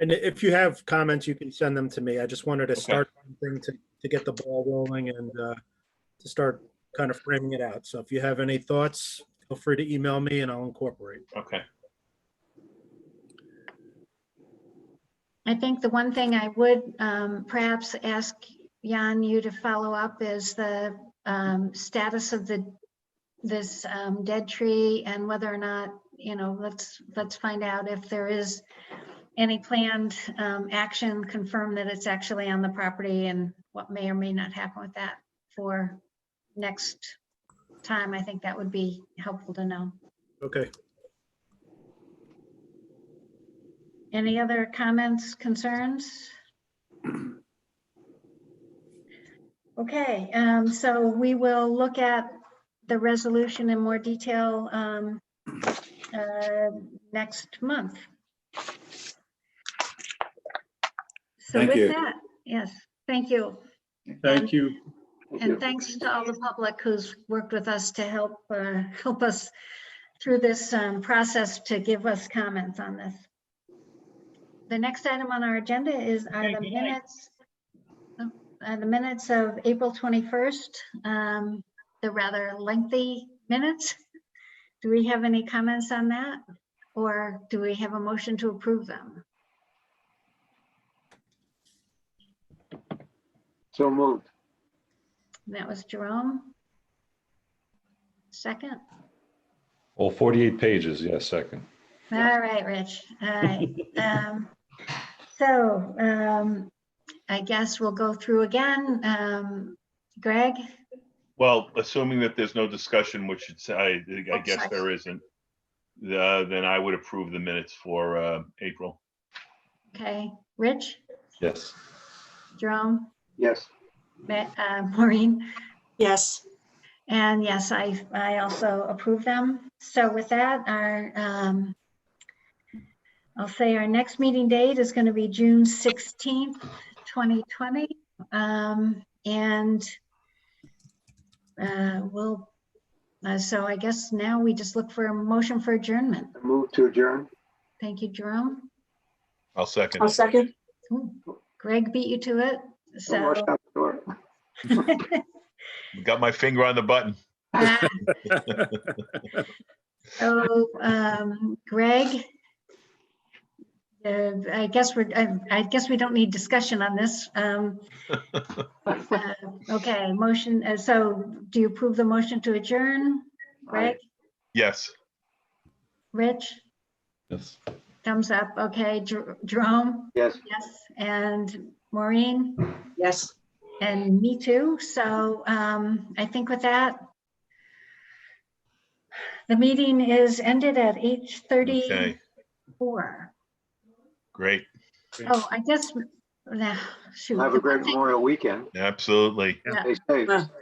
And if you have comments, you can send them to me. I just wanted to Okay. start something to, to get the ball rolling and uh, to start kind of framing it out. So if you have any thoughts, feel free to email me and I'll incorporate. Okay, I think the one thing I would um, perhaps ask Jan, you to follow up is the um, status of the, this um, dead tree and whether or not, you know, let's, let's find out if there is any planned um, action, confirm that it's actually on the property and what may or may not happen with that for next time. I think that would be helpful to know. Okay, Any other comments, concerns? Okay, um, so we will look at the resolution in more detail um, uh, next month. So Thank you. with that, yes, thank you. Thank you. And thanks to all the public who's worked with us to help, uh, help us through this um, process to give us comments on this. The next item on our agenda is are the minutes, are the minutes of April 21st, um, the rather lengthy minutes. Do we have any comments on that? Or do we have a motion to approve them? So moved. That was Jerome. Second? Well, 48 pages, yes, second. All right, Rich. All right. Um, So um, I guess we'll go through again. Um, Greg? well, assuming that there's no discussion, which it's, I, I guess there isn't, uh, then I would approve the minutes for uh, April. Okay. Rich? Yes. Jerome? Yes. Ma- uh, Maureen? Yes, And yes, I, I also approve them. So with that, our, um, I'll say our next meeting date is going to be June 16th, 2020. Um, And uh, we'll, uh, so I guess now we just look for a motion for adjournment. Move to adjourn. Thank you, Jerome. I'll second. I'll second. Ooh, Greg beat you to it, Don't so. rush out the door. Got my finger on the button. Ah. So, um, Greg? uh, I guess we're, I- I guess we don't need discussion on this. Um, uh, Okay, motion, uh, so do you approve the motion to adjourn? Greg, Yes, Rich, Yes. thumbs up, okay, Jer- Jerome, Yes. yes, and Maureen, Yes. and me too. So um, I think with that, the meeting is ended at okay, 8:34. great, Oh, I guess, nah, shoot. Have a great Memorial Weekend. absolutely. Stay safe. Well,